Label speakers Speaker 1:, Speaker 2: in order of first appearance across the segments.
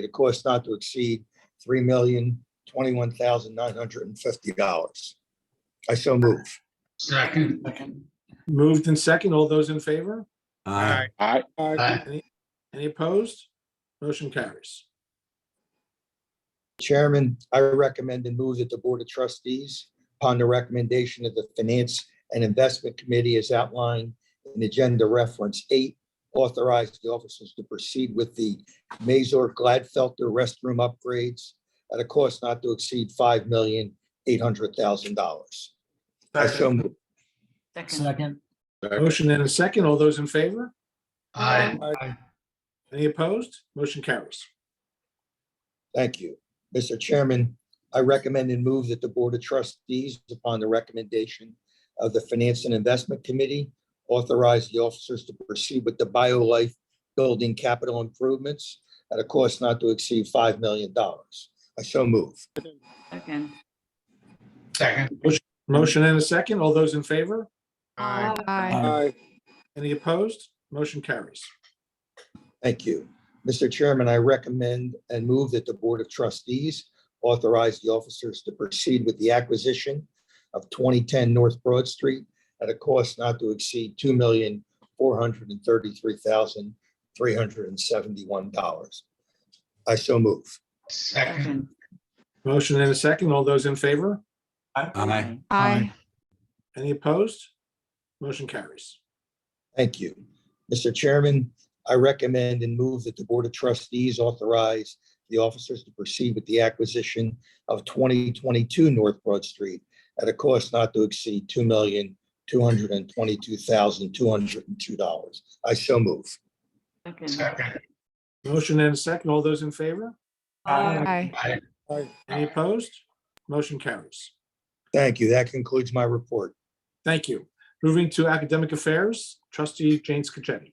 Speaker 1: The cost not to exceed three million, twenty-one thousand, nine hundred and fifty dollars. I so move.
Speaker 2: Second.
Speaker 3: Moved in second. All those in favor?
Speaker 4: Aye.
Speaker 5: Aye.
Speaker 2: Aye.
Speaker 3: Any opposed? Motion carries.
Speaker 1: Chairman, I recommend and move that the Board of Trustees, upon the recommendation of the Finance and Investment Committee as outlined in Agenda Reference Eight, authorize the officers to proceed with the Mazor Gladfelter restroom upgrades at a cost not to exceed five million, eight hundred thousand dollars. I so move.
Speaker 2: Second.
Speaker 3: Motion and a second. All those in favor?
Speaker 2: Aye.
Speaker 3: Any opposed? Motion carries.
Speaker 1: Thank you. Mr. Chairman, I recommend and move that the Board of Trustees, upon the recommendation of the Finance and Investment Committee, authorize the officers to proceed with the BioLife Building capital improvements at a cost not to exceed $5 million. I so move.
Speaker 6: Second.
Speaker 2: Second.
Speaker 3: Motion and a second. All those in favor?
Speaker 2: Aye.
Speaker 6: Aye.
Speaker 4: Aye.
Speaker 3: Any opposed? Motion carries.
Speaker 1: Thank you. Mr. Chairman, I recommend and move that the Board of Trustees authorize the officers to proceed with the acquisition of 2010 North Broad Street at a cost not to exceed $2,433,371. I so move.
Speaker 2: Second.
Speaker 6: Second.
Speaker 3: Motion and a second. All those in favor?
Speaker 4: Aye.
Speaker 6: Aye.
Speaker 3: Any opposed? Motion carries.
Speaker 1: Thank you. Mr. Chairman, I recommend and move that the Board of Trustees authorize the officers to proceed with the acquisition of 2022 North Broad Street at a cost not to exceed $2,222,202. I so move.
Speaker 6: Second.
Speaker 2: Second.
Speaker 3: Motion and a second. All those in favor?
Speaker 6: Aye.
Speaker 2: Aye.
Speaker 3: Any opposed? Motion carries.
Speaker 1: Thank you. That concludes my report.
Speaker 3: Thank you. Moving to academic affairs, trustee Jane Scacchetti.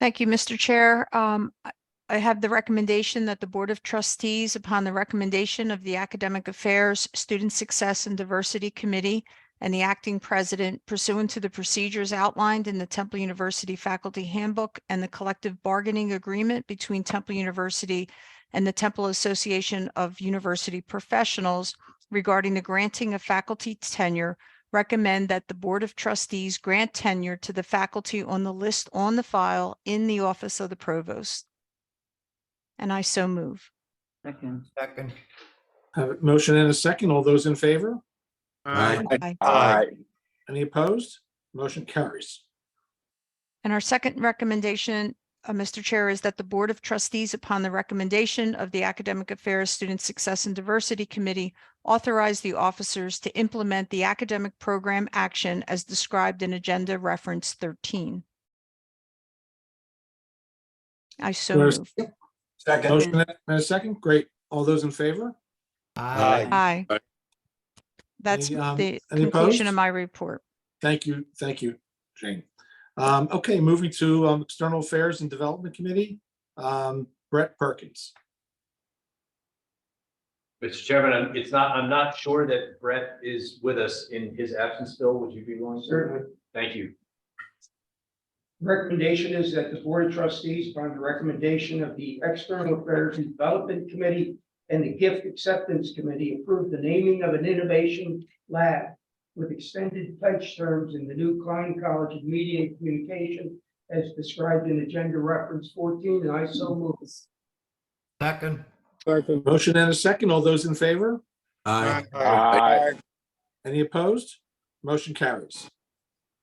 Speaker 7: Thank you, Mr. Chair. Um, I- I have the recommendation that the Board of Trustees, upon the recommendation of the Academic Affairs, Student Success and Diversity Committee and the acting president pursuant to the procedures outlined in the Temple University Faculty Handbook and the collective bargaining agreement between Temple University and the Temple Association of University Professionals regarding the granting of faculty tenure recommend that the Board of Trustees grant tenure to the faculty on the list on the file in the office of the provost. And I so move.
Speaker 6: Second.
Speaker 5: Second.
Speaker 3: Have a Uh, motion and a second. All those in favor?
Speaker 4: Aye.
Speaker 7: Aye.
Speaker 5: Aye.
Speaker 3: Any opposed? Motion carries.
Speaker 7: And our second recommendation, uh, Mr. Chair, is that the Board of Trustees, upon the recommendation of the Academic Affairs Student Success and Diversity Committee, authorize the officers to implement the academic program action as described in Agenda Reference 13. I so
Speaker 3: Where's-
Speaker 7: move.
Speaker 3: Motion and a second. Great. All those in favor?
Speaker 7: Aye. That's
Speaker 3: Any, um,
Speaker 7: the
Speaker 3: any
Speaker 7: conclusion
Speaker 3: opposed?
Speaker 7: of my report.
Speaker 3: Thank you, thank you, Jane. Um, okay, moving to um, External Affairs and Development Committee, um, Brett Perkins.
Speaker 8: Mr. Chairman, I'm- it's not, I'm not sure that Brett is with us in his absence still. Would you be willing? to-
Speaker 9: Certainly.
Speaker 8: Thank you.
Speaker 9: Recommendation is that the Board of Trustees, upon the recommendation of the External Affairs and Development Committee and the Gift Acceptance Committee, approve the naming of an innovation lab with extended pledge terms in the new Klein College of Media and Communication as described in Agenda Reference 14, and I so move.
Speaker 5: Second.
Speaker 3: Motion and a second. All those in favor?
Speaker 4: Aye.
Speaker 5: Aye.
Speaker 3: Any opposed? Motion carries.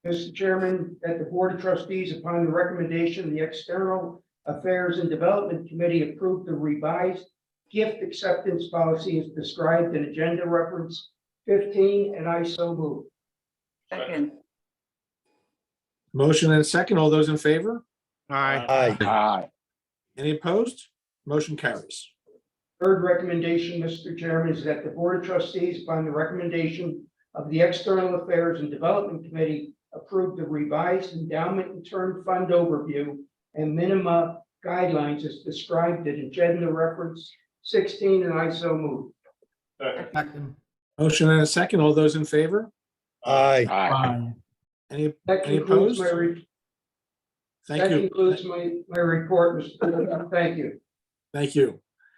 Speaker 9: Mr. Chairman, that the Board of Trustees, upon the recommendation of the External Affairs and Development Committee, approve the revised gift acceptance policy as described in Agenda Reference 15, and I so move.
Speaker 6: Second.
Speaker 3: Motion and a second. All those in favor?
Speaker 1: Aye.
Speaker 5: Aye.
Speaker 3: Any opposed? Motion carries.
Speaker 9: Third recommendation, Mr. Chairman, is that the Board of Trustees, upon the recommendation of the External Affairs and Development Committee, approve the revised endowment and term fund overview and minima guidelines as described in Agenda Reference 16, and I so move.
Speaker 5: Second.
Speaker 3: Motion and a second. All those in favor?
Speaker 1: Aye.
Speaker 5: Aye.
Speaker 3: Any,
Speaker 9: That
Speaker 3: any
Speaker 9: concludes
Speaker 3: opposed?
Speaker 9: my, re- that
Speaker 3: Thank you.
Speaker 9: concludes my, my report, Mr. President. Thank you.
Speaker 3: Thank you.